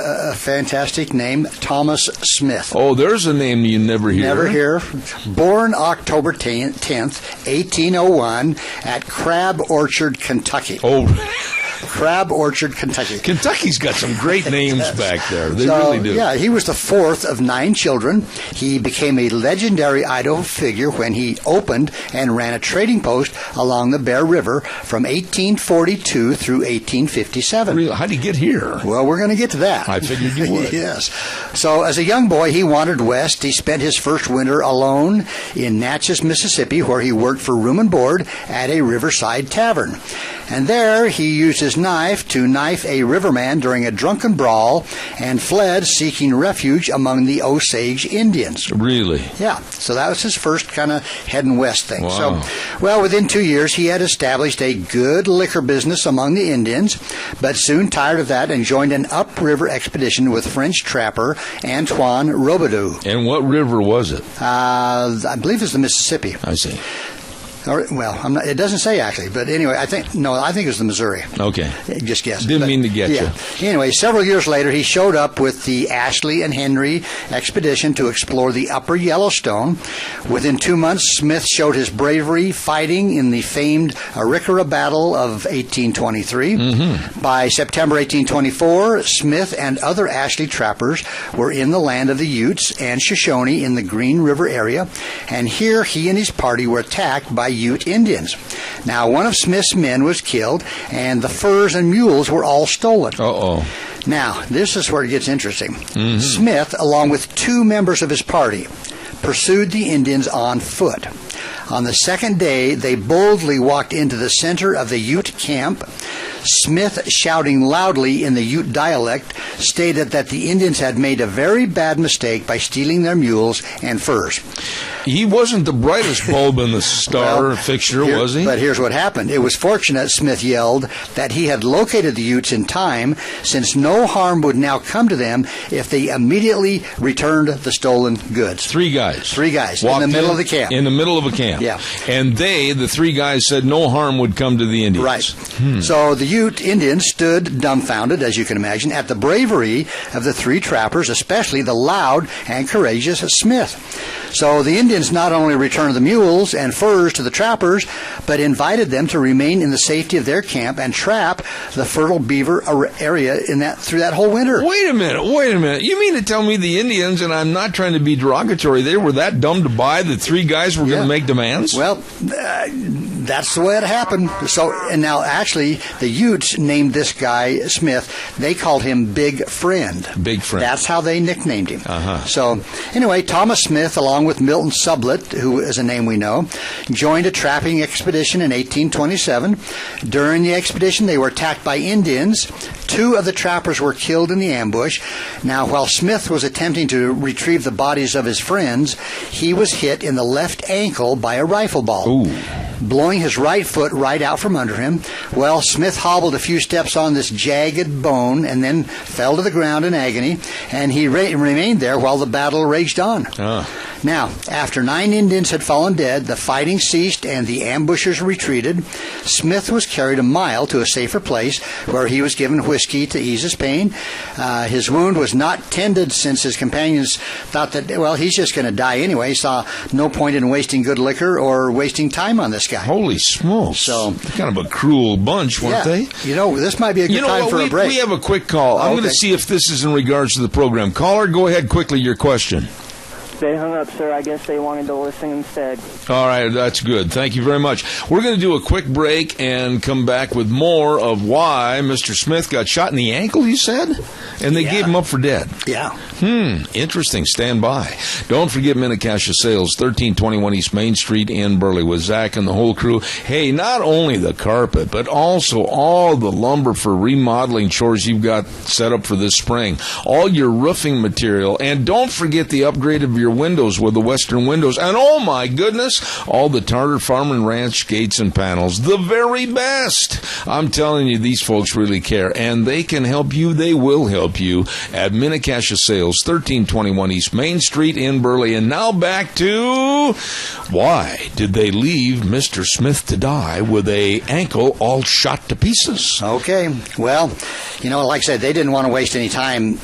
a fantastic name, Thomas Smith. Oh, there's a name you never hear. Never hear. Born October 10th, 1801, at Crab Orchard, Kentucky. Oh, Crab Orchard, Kentucky. Kentucky's got some great names back there. They So, really do. Yeah, he was the fourth of nine children. He became a legendary Idaho figure when he opened and ran a trading post along the Bear River from 1842 through 1857. Really, how'd he get here? Well, we're going to get to that. I figured you would. yes. So, as a young boy, he wandered west. He spent his first winter alone in Natchez, Mississippi, where he worked for room and board at a riverside tavern. And there, he used his knife to knife a riverman during a drunken brawl and fled seeking refuge among the Osage Indians. Really? Yeah, so that was his first kind of heading west thing. Wow. So, well, within two years, he had established a good liquor business among the Indians, but soon tired of that and joined an upriver expedition with French trapper Antoine Robidoux. And what river was it? Uh, I believe it's the Mississippi. I see. Or, well, I'm not, it doesn't say actually, but anyway, I think no, I think it was the Missouri. Okay. Just guess. Didn't mean to get yeah. Anyway, several years later, he showed up with the Ashley and Henry expedition to explore the upper Yellowstone. Within two months, Smith showed his bravery fighting in the famed Arikara Battle of 1823. By September 1824, Smith and other Ashley trappers were in the land of the Utes and Shoshone in the Green River area, and here he and his party were attacked by Ute Indians. Now, one of Smith's men was killed, and the furs and mules were all stolen. Uh oh. Now, this is where it gets interesting. Smith, along with two members of his party, pursued the Indians on foot. On the second day, they boldly walked into the center of the Ute camp. Smith, shouting loudly in the Ute dialect, stated that the Indians had made a very bad mistake by stealing their mules and furs. He wasn't the brightest bulb in the star Well, fixture, here- was he? But here's what happened. It was fortunate, Smith yelled, that he had located the Utes in time, since no harm would now come to them if they immediately returned the stolen goods. Three guys. Three guys in Walked the middle of the camp. In the middle of a camp. Yeah. And they, the three guys, said no harm would come to the Indians. Right. Hmm. So the Ute Indians stood dumbfounded, as you can imagine, at the bravery of the three trappers, especially the loud and courageous Smith. So the Indians not only returned the mules and furs to the trappers, but invited them to remain in the safety of their camp and trap the fertile beaver ar- area in that through that whole winter. Wait a minute, wait a minute. You mean to tell me the Indians, and I'm not trying to be derogatory, they were that dumb to buy that three guys were going Yeah. to make demands? Well, uh, that's the way it happened. So, and now actually, the Utes named this guy Smith. They called him Big Friend. Big Friend. That's how they nicknamed him. Uh-huh. So, anyway, Thomas Smith, along with Milton Sublett, who is a name we know, joined a trapping expedition in 1827. During the expedition, they were attacked by Indians. Two of the trappers were killed in the ambush. Now, while Smith was attempting to retrieve the bodies of his friends, he was hit in the left ankle by a rifle ball Ooh. blowing his right foot right out from under him. Well, Smith hobbled a few steps on this jagged bone and then fell to the ground in agony, and he re- remained there while the battle raged on. Ah. Now, after nine Indians had fallen dead, the fighting ceased and the ambushers retreated. Smith was carried a mile to a safer place where he was given whiskey to ease his pain. Uh, his wound was not tended since his companions thought that, well, he's just going to die anyway, saw no point in wasting good liquor or wasting time on this guy. Holy smokes. So- kind of a cruel bunch, Oh, weren't yeah. they? You know, this might be a good You know time what? for we, a break. Oh, we have a quick call. I'm going Okay. to see if this is in regards to the program. Caller, go ahead quickly. Your question. They hung up, sir. I guess they wanted to listen instead. All right, that's good. Thank you very much. We're going to do a quick break and come back with more of why Mr. Smith got shot in the ankle, you said? And they gave him up for dead. yeah. Hmm, interesting. Stand by. Don't forget Minnecash Sales, 1321 East Main Street in Burley with Zach and the whole crew. Hey, not only the carpet, but also all the lumber for remodeling chores you've got set up for this spring, all your roofing material, and don't forget the upgrade of your windows with the Western windows. And oh my goodness, all the Tartar Farm and Ranch gates and panels, the very best. I'm telling you, these folks really care, and they can help you. They will help you at Minnecash Sales, 1321 East Main Street in Burley. And now back to why did they leave Mr. Smith to die with a ankle all shot to pieces? Okay. Well, you know, like I said, they didn't want to waste any time